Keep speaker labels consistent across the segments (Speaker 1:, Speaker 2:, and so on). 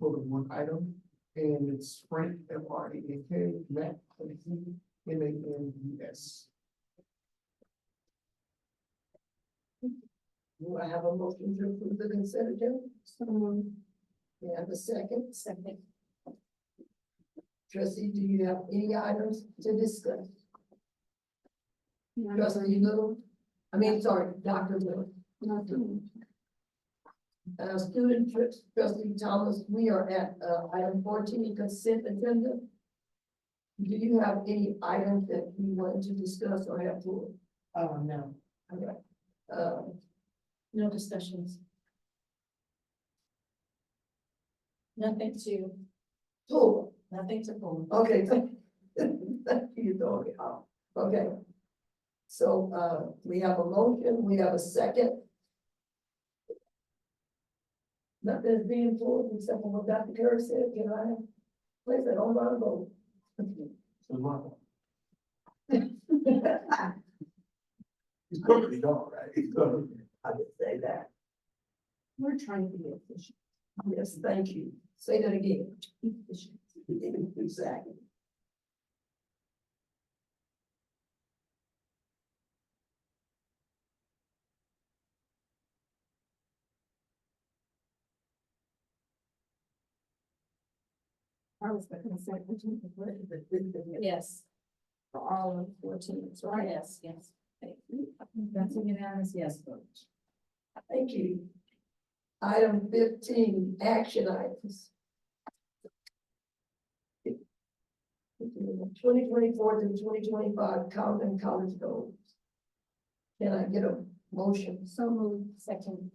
Speaker 1: of one item, and it's Frank, F R A N K, Matt, M A N U S. Do I have a motion to approve the consent agenda? Someone. You have a second? Second. Trustee, do you have any items to discuss? Trustee Little, I mean, sorry, Dr. Little. Uh, student trips, trustee Thomas, we are at, uh, item fourteen, consent agenda. Do you have any items that you wanted to discuss or have to,
Speaker 2: Oh, no,
Speaker 1: uh,
Speaker 2: no discussions. Nothing to,
Speaker 1: pull?
Speaker 2: nothing to pull.
Speaker 1: Okay, thank thank you, Dory, Uh, okay. So, uh, we have a motion, we have a second. Nothing's being pulled except for what Dr. Kerr said, can I, place it on my vote?
Speaker 3: He's perfectly done, right? He's perfect.
Speaker 1: I would say that.
Speaker 2: We're trying to be efficient.
Speaker 1: Yes, thank you. Say that again. Exactly.
Speaker 2: Yes. For all of fourteen, right? Yes, yes. Thank you. That's a unanimous yes vote.
Speaker 1: Thank you. Item fifteen, action items. Twenty twenty-four to twenty twenty-five Compton College goals. Can I get a motion?
Speaker 2: So moved, second.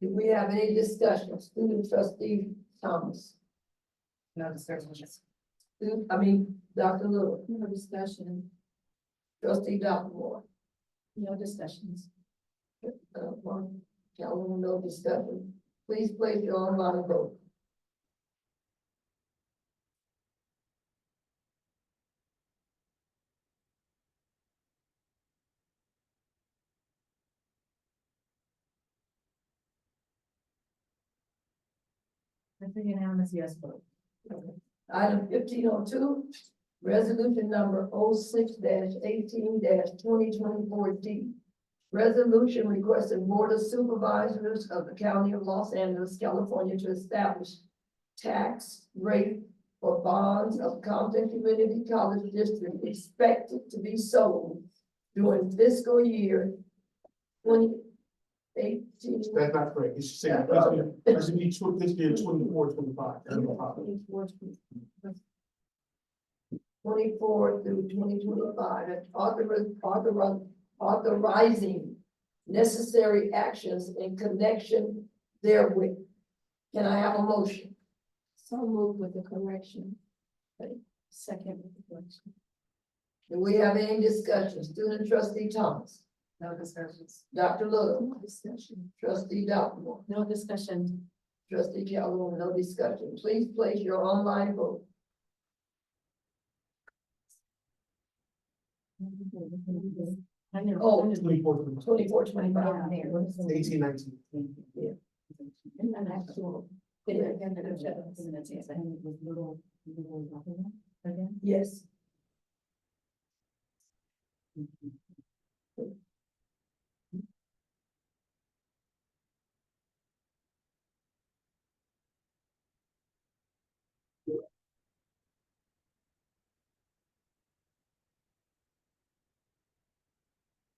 Speaker 1: Do we have any discussion? Student trustee Thomas,
Speaker 2: No discussions.
Speaker 1: Student- I mean, Dr. Little,
Speaker 2: No discussion,
Speaker 1: trustee Dr. Moore.
Speaker 2: no discussions.
Speaker 1: Uh, one, gentlemen, no discussion. Please place your online vote.
Speaker 2: That's a unanimous yes vote.
Speaker 1: Item fifteen oh two, resolution number 6 eighteen twenty twenty-four D. Resolution requesting Board of Supervisors of the County of Los Angeles, California to establish tax rate for bonds of Compton Community College District expected to be sold during fiscal year twenty eighteen.
Speaker 3: That's not correct. It's
Speaker 1: Yeah,
Speaker 3: saying,
Speaker 1: well,
Speaker 3: that's gonna be tw- this year, twenty-four, twenty-five. That's the problem.
Speaker 1: Twenty-four through twenty twenty-five, and authorize, authorize, authorizing necessary actions in connection therewith. Can I have a motion?
Speaker 2: So moved with the correction. Second with the correction.
Speaker 1: Do we have any discussion? Student trustee Thomas,
Speaker 2: No discussions.
Speaker 1: Dr. Little,
Speaker 2: No discussion.
Speaker 1: trustee Dopplemore,
Speaker 2: No discussion.
Speaker 1: trustee Calhoun, no discussion. Please place your online vote.
Speaker 2: I know.
Speaker 1: Oh.
Speaker 3: Twenty-four, twenty-five,
Speaker 1: Twenty-four, twenty-five.
Speaker 2: Yeah.
Speaker 3: eighteen, nineteen.
Speaker 2: And then actual.
Speaker 1: Yeah. Yes.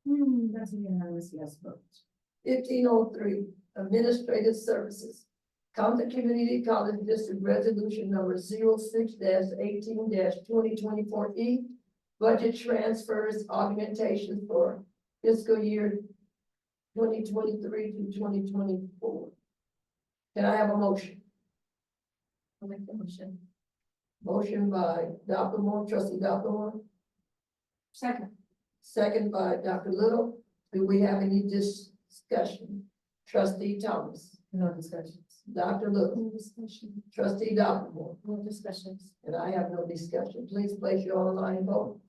Speaker 2: Hmm, that's a unanimous yes vote.
Speaker 1: fifteen oh three, Administrative Services. Compton Community College District Resolution Number 6 eighteen twenty twenty-four E. Budget transfers augmentation for fiscal year twenty twenty-three to twenty twenty-four. Can I have a motion?
Speaker 2: I'll make the motion.
Speaker 1: Motion by Dr. Moore, trustee Dr. Moore,
Speaker 2: Second.
Speaker 1: second by Dr. Little. Do we have any discussion? Trustee Thomas,
Speaker 2: No discussions.
Speaker 1: Dr. Little,
Speaker 2: No discussion.
Speaker 1: trustee Dr. Moore.
Speaker 2: No discussions.
Speaker 1: And I have no discussion. Please place your online vote.